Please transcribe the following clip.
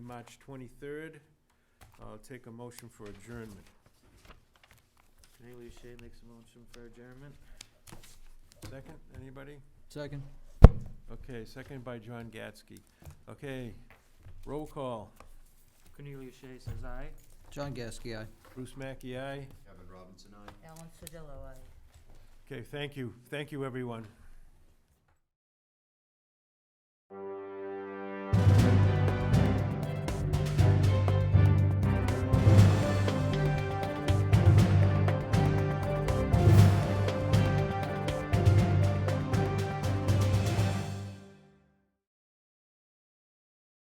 March 23rd. I'll take a motion for adjournment. Cornelius Shea makes a motion for adjournment. Second, anybody? Second. Okay, second by John Gatsky. Okay, roll call. Cornelius Shea says aye. John Gasky, aye. Bruce Mackey, aye. Kevin Robinson, aye. Ellen Sodillo, aye. Okay, thank you. Thank you, everyone.